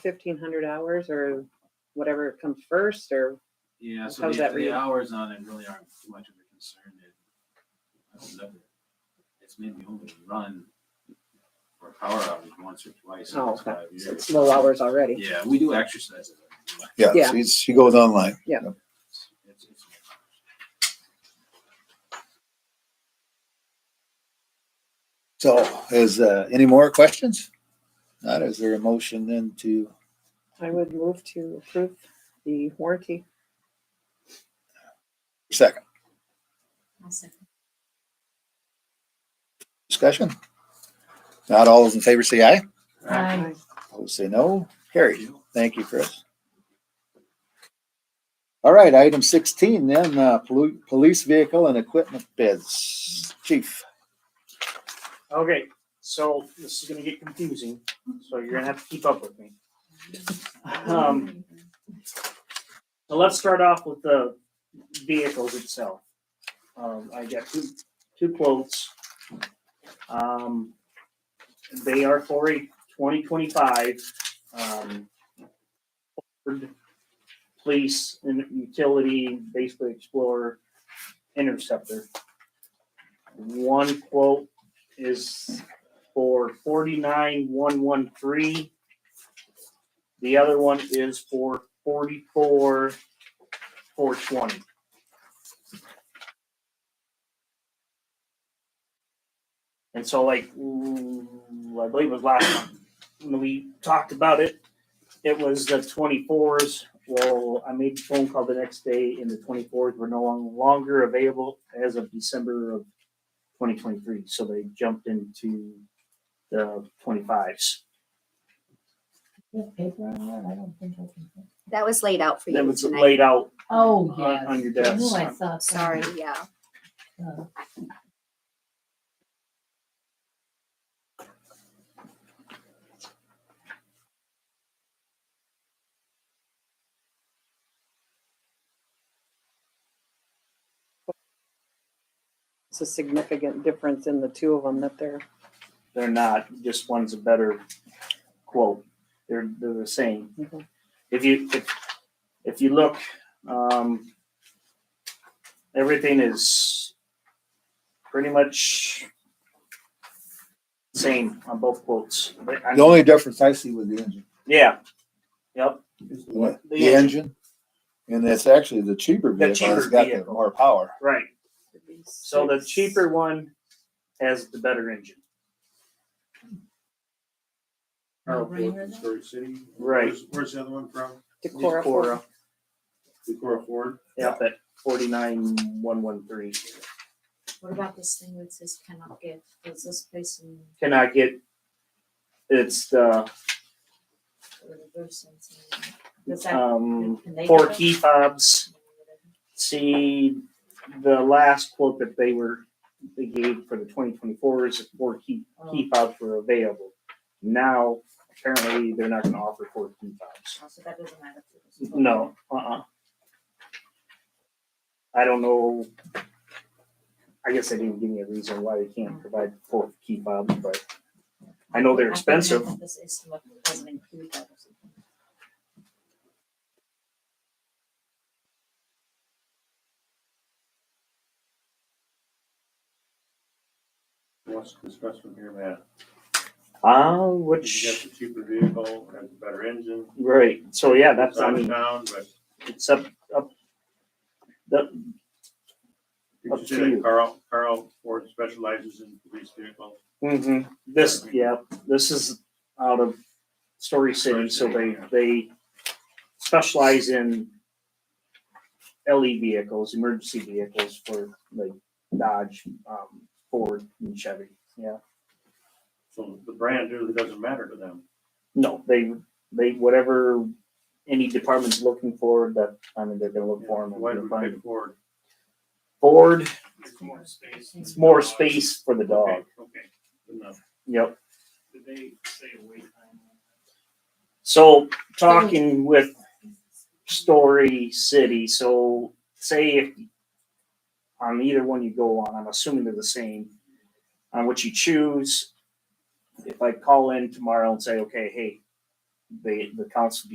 fifteen hundred hours or whatever comes first or Yeah, so How's the, that the read? hours on it really aren't too much of a concern. It, I don't know. It's maybe only run for a power outage once or twice in Oh, those okay. five so it's years. low hours already. Yeah, we do exercises. every day. Yeah. Yeah, she's- she goes online. It's- it's- it's- So is, uh, any more questions? Not, is there a motion then to, I would move to approve the warranty. second, I'll second. discussion? Not all those in favor say aye, Aye. opposed say no, carried. Thank you, Chris. All right, item sixteen then, uh, polu- police vehicle and equipment bids. Chief, Okay, so this is gonna get confusing, so you're gonna have to keep up with me. Um, so let's start off with the vehicles itself. Um, I got two, two quotes. Um, they are for a twenty twenty-five, um, Ford police and utility, basically Explorer Interceptor. One quote is for forty-nine one one three. The other one is for forty-four four twenty. And so like, ooh, I believe it was last month when we talked about it, it was the twenty-fours. Well, I made a phone call the next day and the twenty-fours were no longer available as of December of twenty twenty-three, so they jumped into the twenty-fives. paper on that? I don't think I can. find- That was laid out for That you was tonight. laid out Oh, on- yes. on your I knew desk. I saw. Sorry, something. yeah. Uh, It's a significant difference in the two of them that they're, They're not, just one's a better quote. They're, they're the same. Mhm. If you, if, if you look, um, everything is pretty much same on both quotes. But I- the only difference I see with the engine, Yeah. Yep. the engine, and it's actually the cheaper The vehicle, it's cheaper got the vehicle. more power. Right. So the cheaper one has the better engine. no-brainer then? Story City. Right. Where's- Where's the other one from? Decorah. Cora. Decorah Ford? Yep, at forty-nine, one, one, three. What about this thing that says cannot give? Does this person, Can I get, it's the, or the person, does that, um, can they? four give it? key fobs. See, the last quote that they were, they gave for the twenty twenty-four is four key, key Oh. fobs were available. Now, apparently, they're not gonna offer four key fobs. Oh, So that doesn't matter. No, uh-uh. I don't know. I guess they didn't give me a reason why they can't provide four key fobs, but I know they're think expensive. that This is what doesn't include that or something. What's the discussion here, Matt? uh, You got which, the cheaper vehicle, has a better engine, right, so yeah, that's, it's I out of mean, town, but it's up, up. The, you Up should to say you. that Carl, Carl Ford specializes in police vehicles. mhm, this, yeah, this is out of Story City, so they, they specialize in LE vehicles, emergency vehicles for like Dodge, um, Ford and Chevy, yeah. So the brand really doesn't matter to them. No, they, they, whatever any department's looking for, that, I mean, they're gonna look for them. Why do we pick Ford? Ford, It's more space. it's more space for the dog, Okay, okay, good enough. yep. Did they say a wait time? So talking with Story City, so say if on either one you go on, I'm assuming they're the same. On what you choose, if I call in tomorrow and say, okay, hey, they, the council